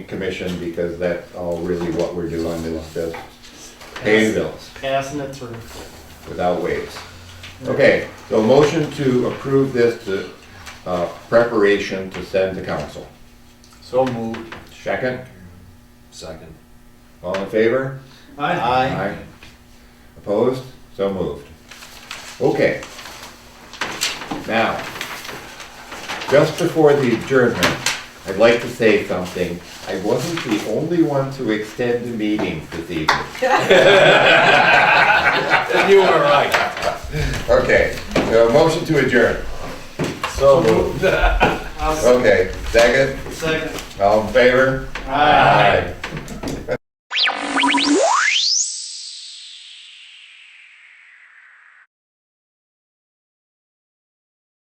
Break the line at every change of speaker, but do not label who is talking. commission because that's all really what we're doing is just paying bills
Passing it through.
without waves. Okay, so motion to approve this to, uh, preparation to send to council.
So moved.
Second,
Second.
all in favor?
Aye.
Opposed? So moved. Okay. Now, just before the adjournment, I'd like to say something. I wasn't the only one to extend the meeting this evening.
You were right.
Okay, so a motion to adjourn.
So moved.
I'll
Okay, second,
Second.
all in favor?
Aye.